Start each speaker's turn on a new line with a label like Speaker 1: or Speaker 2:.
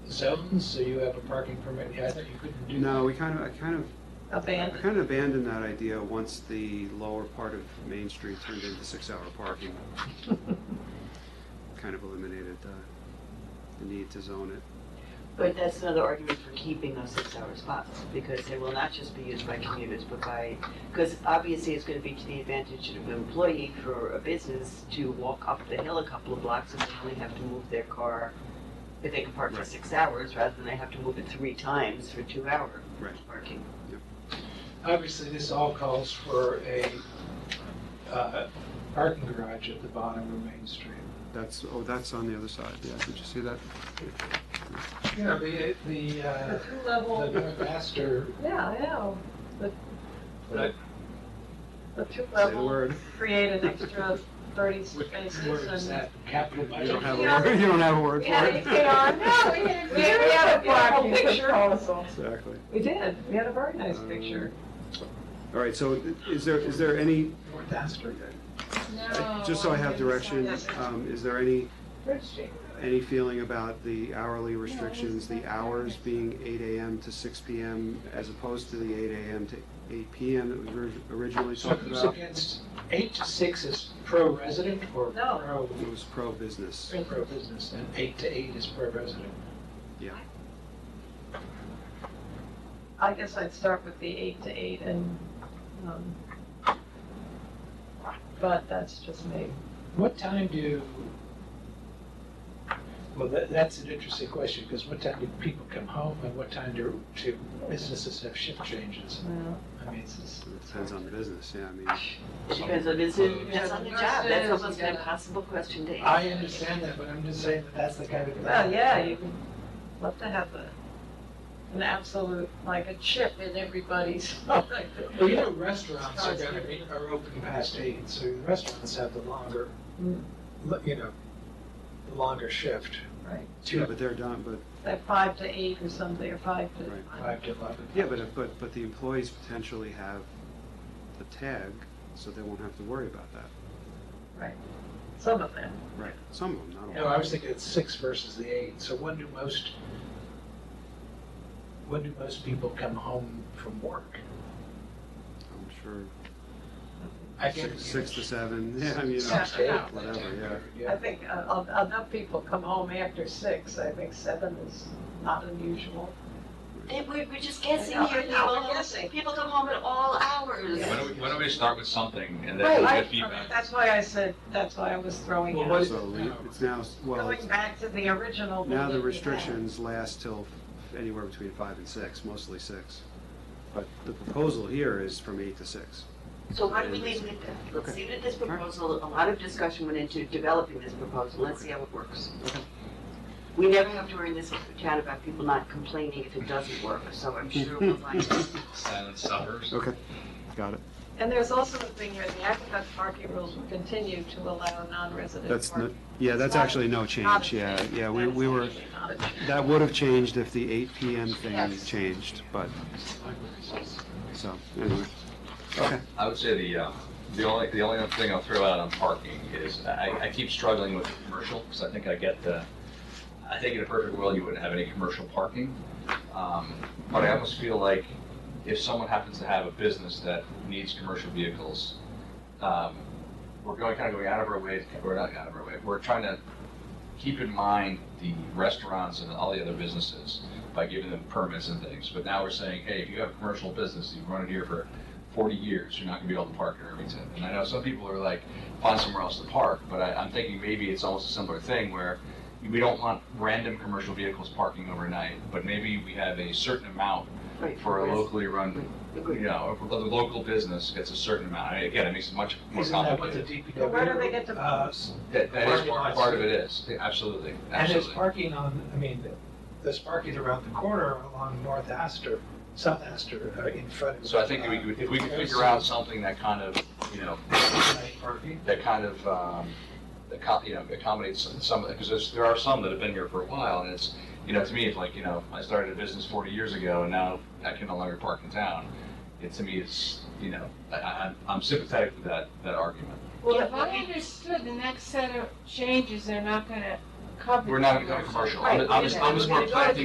Speaker 1: Soutons, so you have a parking permit, yeah, I thought you couldn't do that.
Speaker 2: No, we kind of, I kind of, I
Speaker 3: abandoned.
Speaker 2: kind of abandoned that idea once the lower part of Main Street turned into six-hour parking. Kind of eliminated the, the need to zone it.
Speaker 4: But that's another argument for keeping those six-hour spots, because they will not just be used by commuters, but by, because obviously it's gonna be to the advantage of an employee for a business to walk up the hill a couple of blocks and they only have to move their car if they can park for
Speaker 2: Right.
Speaker 4: six hours, rather than they have to move it three times for two-hour
Speaker 2: Right.
Speaker 4: parking.
Speaker 1: Obviously, this all calls for a uh, parking garage at the bottom of Main Street.
Speaker 2: That's, oh, that's on the other side, yeah, did you see that?
Speaker 1: You know, the, the,
Speaker 3: The
Speaker 1: uh, the
Speaker 3: two-level,
Speaker 1: North Astor, uh,
Speaker 3: yeah, I know.
Speaker 1: but
Speaker 3: The
Speaker 2: Say the
Speaker 3: two-level
Speaker 2: word.
Speaker 3: create an extra thirty
Speaker 1: what
Speaker 3: spaces
Speaker 1: word is
Speaker 3: and.
Speaker 1: that, capital
Speaker 2: You don't have
Speaker 1: budget?
Speaker 2: a word, you don't have a word for
Speaker 5: Yeah,
Speaker 2: it.
Speaker 5: it's been on. No, we had a
Speaker 3: We had- we had a
Speaker 5: very
Speaker 3: blocking
Speaker 5: beautiful picture.
Speaker 3: proposal.
Speaker 2: Exactly.
Speaker 3: We did, we had a very nice
Speaker 1: Uh,
Speaker 2: Um,
Speaker 3: picture.
Speaker 2: All right, so is there, is there any,
Speaker 1: North Astor.
Speaker 5: No,
Speaker 2: just so I have
Speaker 5: didn't
Speaker 2: direction,
Speaker 5: sign it.
Speaker 2: um, is there any
Speaker 3: Bridge Street.
Speaker 2: Any feeling about the hourly restrictions, the hours being eight AM to six PM as opposed to the eight AM to eight PM that we were originally
Speaker 1: So
Speaker 2: talked
Speaker 1: who's
Speaker 2: about?
Speaker 1: against, eight to six is pro-resident or
Speaker 3: No.
Speaker 1: pro,
Speaker 2: It was pro-business.
Speaker 1: pro-business, and eight to eight is pro-resident?
Speaker 3: I guess I'd start with the eight to eight and, um, but that's just me.
Speaker 1: What time do, well, that, that's an interesting question, because what time do people come home and what time do, do businesses have shift changes?
Speaker 3: Well,
Speaker 1: I mean, it's, it's.
Speaker 2: It Depends on the business, yeah, I mean,
Speaker 4: Depends on, it's, depends on the job, that's
Speaker 5: Nurses,
Speaker 4: almost an
Speaker 5: yeah.
Speaker 4: impossible question to answer.
Speaker 1: I understand that, but I'm just saying that that's the kind of.
Speaker 3: Well, yeah, you would love to have a, an absolute, like a chip in everybody's.
Speaker 1: Well, you know, restaurants are gonna be, are open past eight, so the restaurants have the longer,
Speaker 3: Mm.
Speaker 1: look, you know, the longer shift,
Speaker 3: Right,
Speaker 2: yeah, but they're done, but,
Speaker 3: that five to eight or something, or five
Speaker 2: Right.
Speaker 3: to.
Speaker 1: five to eleven.
Speaker 2: yeah, but, but, but the employees potentially have the tag, so they won't have to worry about that.
Speaker 3: Some of them.
Speaker 2: Right. Some of them, not all.
Speaker 1: No, I was thinking it's six versus the eight, so when do most, when do most people come home from work?
Speaker 2: I'm sure,
Speaker 1: I
Speaker 2: six,
Speaker 1: guarantee
Speaker 2: six
Speaker 1: you-
Speaker 2: to seven, yeah, I mean, you know,
Speaker 3: Yeah.
Speaker 1: Six to eight,
Speaker 2: whatever,
Speaker 1: whatever,
Speaker 3: I
Speaker 1: yeah.
Speaker 3: think uh, en- enough people come home after six, I think seven is not unusual.
Speaker 4: They- We're, we're just guessing
Speaker 3: I know,
Speaker 4: here,
Speaker 3: I know, we're
Speaker 4: people,
Speaker 3: guessing.
Speaker 4: people come home at all hours.
Speaker 3: Yeah.
Speaker 6: Why don't we, why don't we start with something and then
Speaker 3: Right,
Speaker 6: we'll
Speaker 3: I-
Speaker 6: get feedback?
Speaker 3: That's why I said, that's why I was throwing
Speaker 1: Well,
Speaker 3: out,
Speaker 1: what-
Speaker 2: so we- it's now, well, it's
Speaker 3: going back to the
Speaker 2: Now
Speaker 3: original.
Speaker 2: the
Speaker 3: meeting we had.
Speaker 2: restrictions last till anywhere between five and six, mostly six. But the proposal here is from eight to six.
Speaker 4: So why do we leave it at that? Let's
Speaker 2: Okay.
Speaker 4: leave it at this proposal, a lot of discussion went into developing this proposal, let's see how it works. We never have to worry in this chat about people not complaining if it doesn't work, so I'm sure we'll find it.
Speaker 6: Silence suffers.
Speaker 2: Okay, got it.
Speaker 3: And there's also the thing here, the Aqueduct parking rules will continue to allow non-resident
Speaker 2: That's, no-
Speaker 3: parking.
Speaker 2: yeah, that's actually no
Speaker 3: Not a
Speaker 2: change, yeah, yeah, we, we were,
Speaker 3: That's actually not a change.
Speaker 2: that would have changed if the eight PM thing
Speaker 3: Yes.
Speaker 2: changed, but, so, anyway. Okay,
Speaker 6: I would say the, uh, the only, the only other thing I'll throw out on parking is, I, I keep struggling with commercial, because I think I get the, I think in a perfect world, you wouldn't have any commercial parking. Um, But I almost feel like if someone happens to have a business that needs commercial vehicles, um, we're going, kind of going out of our way, we're not out of our way, we're trying to keep in mind the restaurants and all the other businesses by giving them permits and things. But now we're saying, hey, if you have a commercial business, you've run it here for 40 years, you're not going to be able to park in Irvington. And I know some people are like, find somewhere else to park, but I, I'm thinking maybe it's almost a similar thing where we don't want random commercial vehicles parking overnight, but maybe we have a certain amount
Speaker 4: Right,
Speaker 6: for a
Speaker 4: whereas-
Speaker 6: locally run, you
Speaker 4: Agreed.
Speaker 6: know, if the local business gets a certain amount. I mean, Again, it makes it much more
Speaker 1: Isn't that what the
Speaker 6: complicated.
Speaker 1: DPW?
Speaker 3: But where do they get to-
Speaker 1: uh,
Speaker 6: That, that is
Speaker 1: Parking
Speaker 6: part,
Speaker 1: lots.
Speaker 6: part of it is, Yeah, absolutely,
Speaker 1: And there's
Speaker 6: absolutely.
Speaker 1: parking on, I mean, there's parking around the corner along North Astor, South Astor, uh, in front of.
Speaker 6: So I think if we, could- if we could figure out something that kind of, you know,
Speaker 1: Parking.
Speaker 6: that kind of, um, that co- you know, accommodates some- some of it, because there are some that have been here for a while, and it's, you know, to me, it's like, you know, I started a business forty years ago, and now I can no longer park in town. It, to me, it's, you know, I, I, I'm- I'm sympathetic to that, that argument.
Speaker 5: Well, if I understood, the next set of changes, they're not gonna cover.
Speaker 6: We're not gonna go commercial, I'm, I'm just, I'm just more
Speaker 5: Right, we're gonna go to
Speaker 6: planting